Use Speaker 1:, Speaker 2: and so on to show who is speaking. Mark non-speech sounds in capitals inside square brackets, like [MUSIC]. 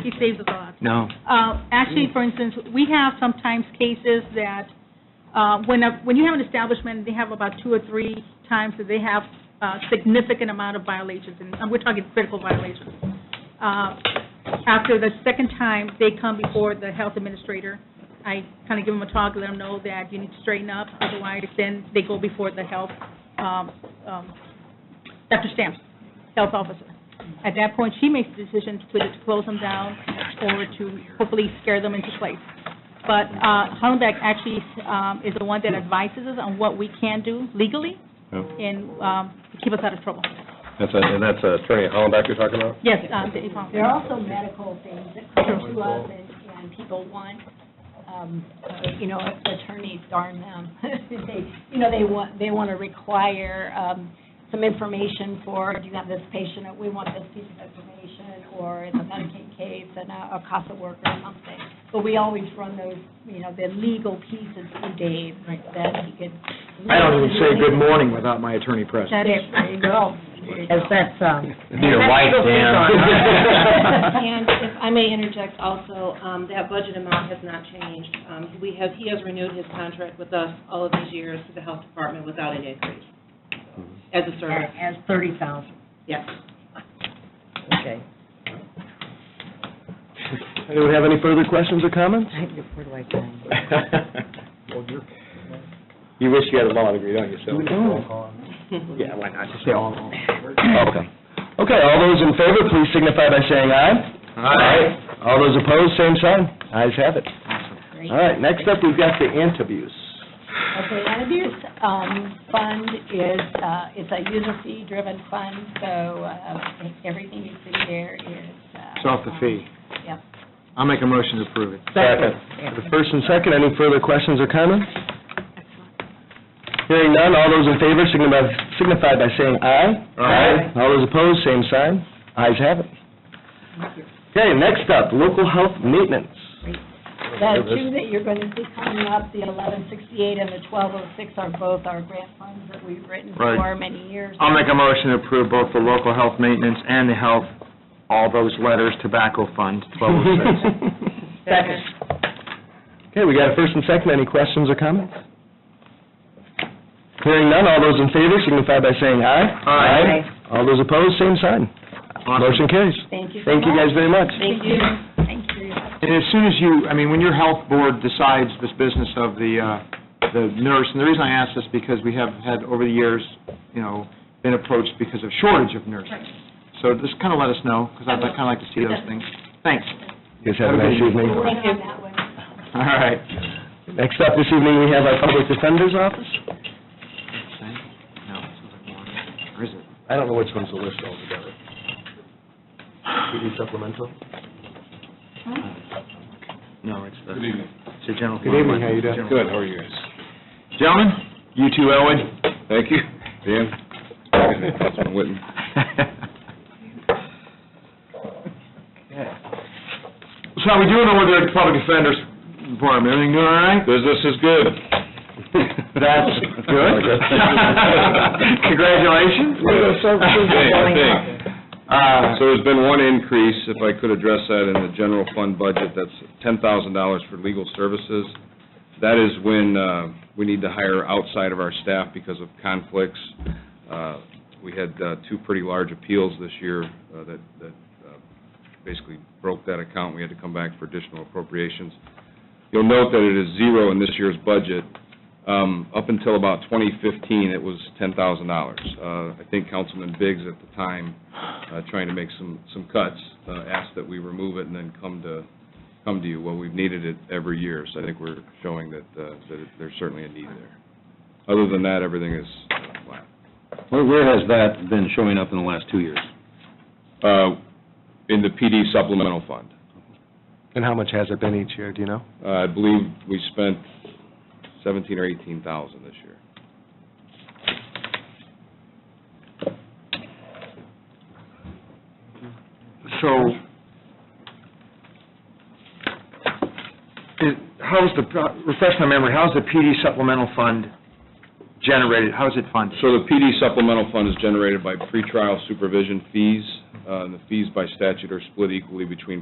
Speaker 1: He saves us a lot.
Speaker 2: No.
Speaker 1: Uh, Actually, for instance, we have sometimes cases that uh, when, a- when you have an establishment, they have about two or three times that they have uh, significant amount of violations, and and we're talking critical violations. Uh, After the second time, they come before the health administrator. I kind of give them a talk, let them know that you need to straighten up, otherwise then they go before the health, um, um, Dr. Stamps, health officer. At that point, she makes the decision to either to close them down or to hopefully scare them into place. But uh, Hollenbeck actually um, is the one that advises us on what we can do legally
Speaker 3: Yeah.
Speaker 1: and um, to keep us out of trouble.
Speaker 3: That's, a- and that's uh, Attorney Hollenbeck you're talking about?
Speaker 1: Yes, um, Dave Hollenbeck.
Speaker 4: There are also medical things that come to us, and, and people want, um, uh, you know, attorneys, darn them. [LAUGHS] They, you know, they want, they want to require, um, some information for, do you have this patient, we want this piece of information, or it's a Medicaid case and a, a CASA worker or something. But we always run those, you know, the legal pieces to Dave, that he could.
Speaker 2: I don't even say good morning without my attorney present.
Speaker 4: That is, there you go.
Speaker 5: As that's, um.
Speaker 2: your
Speaker 5: that's
Speaker 2: wife,
Speaker 5: legal
Speaker 2: Dan.
Speaker 6: And if I may interject also, um, that budget amount has not changed. Um, We have, he has renewed his contract with us all of these years to the health department without an increase as a
Speaker 5: legal.
Speaker 6: service,
Speaker 5: Mm-hmm. As thirty thousand,
Speaker 6: yes.
Speaker 5: okay.
Speaker 3: Anyone have any further questions or comments?
Speaker 5: I, where do I go?
Speaker 3: [LAUGHS] You wish you had a law degree, don't you, Sylvia? Yeah, why not? Just say all along. Okay. Okay, all those in favor, please signify by saying aye. Aye. All those opposed, same sign. Ayes have it. All right, next up, we've got the interviews.
Speaker 4: Okay, and abuse um, fund is, uh, it's a user fee-driven fund, so uh, everything you see there is... uh,
Speaker 2: It's off the fee.
Speaker 4: Yep.
Speaker 2: I'll make a motion to approve it.
Speaker 3: Second. The first and second, any further questions or comments? Hearing none, all those in favor signify signify by saying aye.
Speaker 2: Aye.
Speaker 3: All those opposed, same sign. Ayes have it. Okay, next up, local health maintenance.
Speaker 4: The two that you're going to see coming up, the 1168 and the 1206 are both our grant funds that we've written
Speaker 2: Right.
Speaker 4: for many years.
Speaker 2: I'll make a motion to approve both the local health maintenance and the health, all those letters, tobacco oh
Speaker 4: [LAUGHS]
Speaker 2: fund, 1206.
Speaker 5: Second.
Speaker 3: [LAUGHS] Okay, we got a first and second, any questions or comments? Hearing none, all those in favor signify by saying aye.
Speaker 2: Aye.
Speaker 3: All those opposed, same sign.
Speaker 2: Awesome.
Speaker 3: Motion carries.
Speaker 4: Thank you so
Speaker 3: Thank you guys
Speaker 4: much.
Speaker 3: very much.
Speaker 6: Thank you.
Speaker 4: Thank you.
Speaker 2: And as soon as you, I mean, when your health board decides this business of the, uh, the nurse, and the reason I ask this because we have had over the years, you know, been approached because of shortage of nurses. So just kind of let us know, because I'd kind of like to see those things. Thanks.
Speaker 3: Guys have a nice evening.
Speaker 4: We're working on that one.
Speaker 2: All right.
Speaker 3: Next up this evening, we have our Public Defender's Office.
Speaker 2: No, it sounds like one. Or is it?
Speaker 3: I don't know which one's the list altogether. PD supplemental?
Speaker 2: No, it's the, it's your general.
Speaker 3: Good evening, how you doing?
Speaker 2: Good, how are you guys? Gentlemen, you too, Elwood.
Speaker 3: Thank you. Dan?
Speaker 2: Councilman
Speaker 3: Whitten.
Speaker 2: So how we doing over there at the Public Defender's Department? Everything doing all right?
Speaker 3: Business is good.
Speaker 2: That's [LAUGHS] good.
Speaker 3: [LAUGHS]
Speaker 2: Congratulations. Uh,
Speaker 7: So there's been one increase, if I could address that, in the general fund budget, that's ten thousand dollars for legal services. That is when uh, we need to hire outside of our staff because of conflicts. Uh, We had uh, two pretty large appeals this year uh, that, that uh, basically broke that account. We had to come back for additional appropriations. You'll note that it is zero in this year's budget. Um, Up until about 2015, it was $10,000. Uh, I think Councilman Biggs at the time, uh, trying to make some, some cuts, uh, asked that we remove it and then come to, come to you. Well, we've needed it every year, so I think we're showing that, uh, that there's certainly a need there. Other than that, everything is uh, flat.
Speaker 8: Where, where has that been showing up in the last two years?
Speaker 7: Uh, In the PD supplemental fund,
Speaker 3: And how much has it been each year, do you know?
Speaker 7: uh, I believe we spent 17 or 18,000 this year.
Speaker 2: So, is- how's the, uh, refresh my memory, how's the PD supplemental fund generated? How's it funded?
Speaker 7: So the PD supplemental fund is generated by pretrial supervision fees, uh, and the fees by statute are split equally between